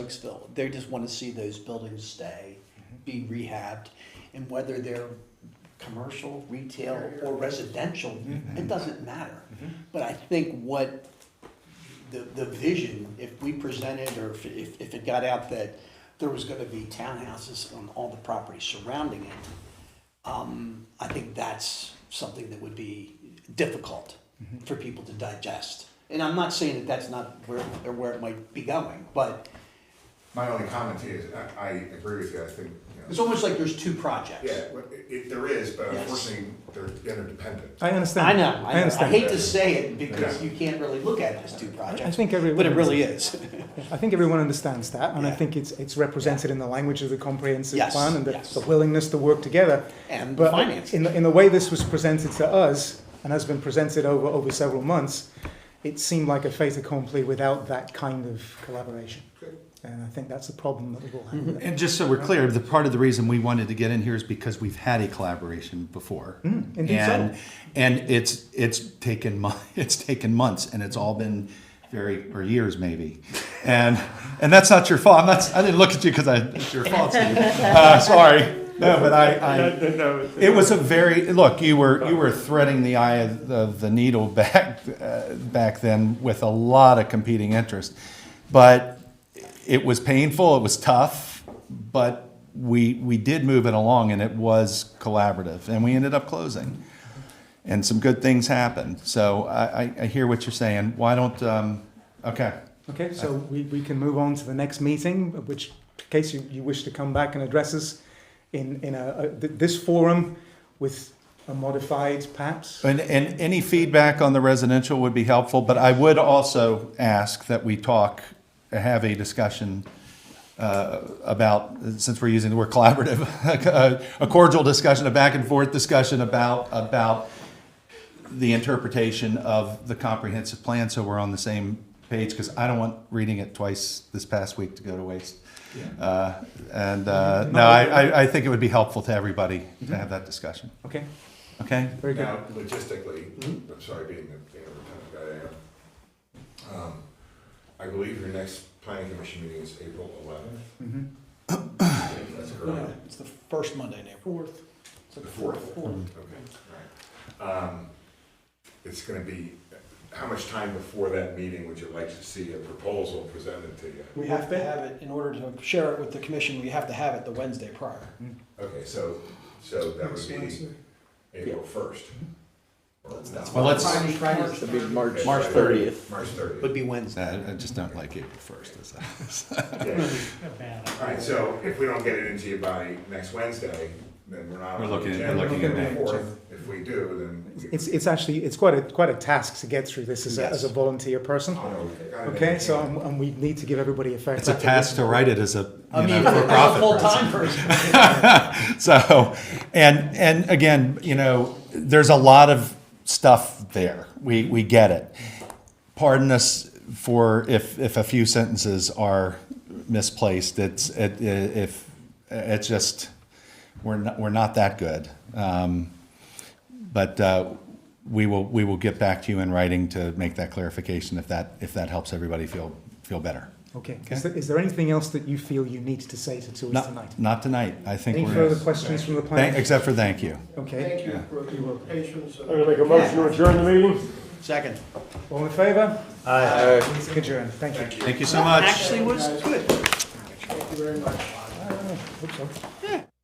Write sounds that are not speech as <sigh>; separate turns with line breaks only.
Sykesville, they just want to see those buildings stay, be rehabbed, and whether they're commercial, retail, or residential, it doesn't matter. But I think what the, the vision, if we presented, or if, if if it got out that there was gonna be townhouses on all the property surrounding it, um, I think that's something that would be difficult for people to digest. And I'm not saying that that's not where, or where it might be going, but
My only comment to you is, I, I agree with you, I think, you
It's
know,
almost like there's two projects.
yeah, well, i- it, there is, but
Yes.
unfortunately, they're interdependent.
I understand.
I know, I know. I
understand.
hate to say it because you can't really look at it as two
I
projects,
think everyone.
but it really is.
I think everyone understands that, and I
Yeah.
think it's it's represented in the language of the comprehensive
Yes,
plan and the,
yes.
the willingness to work together.
And
but
finance.
in the, in the way this was presented to us and has been presented over over several months, it seemed like a fait accompli without that kind of collaboration. And I think that's the problem that we all have. with it.
And just so we're clear, the part of the reason we wanted to get in here is because we've had a collaboration before.
Mm, indeed so.
and and it's it's taken mon- <laughs> it's taken months and it's all been very or years maybe. And and that's not your fault. I'm not I didn't look at you because I it's your fault. Steve. Uh, sorry. No, but I, I it was a very look. You were you were threading the eye of the, of the needle <laughs> back uh, back then with a lot of competing interest, but it was painful. It was tough, but we we did move it along, and it was collaborative, and we ended up closing, and some good things happened. So I, I, I hear what you're saying. Why don't um, okay.
Okay, so we, we can move on to the next meeting, which, in case you, you wish to come back and address us in, in a, a, th- this forum with a modified perhaps.
And, and any feedback on the residential would be helpful, but I would also ask that we talk, have a discussion uh, about, since we're using the word collaborative, <laughs> a cordial discussion, a back and forth discussion about, about the interpretation of the comprehensive plan, so we're on the same page, because I don't want reading it twice this past week to go to waste. Uh, And, uh, no, I, I- I think it would be helpful to everybody to have that discussion,
Okay,
okay?
very good.
Now, logistically, I'm sorry, being the, being the guy I am. um, I believe your next planning commission meeting is April eleventh.
Mhm.
That's correct.
It's the first Monday in April. Fourth.
The fourth.
Mm-hmm.
Okay, all right. Um, It's gonna be, how much time before that meeting would you like to see a proposal presented to you?
We have to have it, in order to share it with the commission, we have to have it the Wednesday prior.
Okay, so, so that would be April first.
Well, let's-
Should be March.
March
30th.
March
Would
thirtieth.
be Wednesday.
I I just don't like April first. is that-
All right, so if we don't get it into you by next Wednesday, then we're not.
We're
on
looking at-
the agenda.
we're looking at
April
May.
4th. If we do, then.
It's, it's actually, it's quite a, quite a task to get through this as a, as a volunteer person.
Oh,
Okay, so, and- and we need to give everybody a fair.
It's a
crack at
task
this.
to write it as a
I
you
mean,
know,
as a
for-profit
full-time person.
person. So, and and again, you know, there's a lot of stuff there. We we get it. Pardon us for if if a few sentences are misplaced. It's it, if it's just we're not we're not that good. Um, but uh, we will we will get back to you in writing to make that clarification if that if that helps everybody feel feel better.
Okay, is there, is there anything else that you feel you need to say to, to us tonight?
Not, not tonight. I think
Any
we're.
further questions from the
Thank-
planning?
except for thank you.
Okay,
you
for your patience.
I'm gonna make a motion to adjourn the meeting.
Second.
all in favor?
Aye.
Meeting adjourned, thank you.
Thank you so much.
Actually was good.
Thank you very much.
Hope so.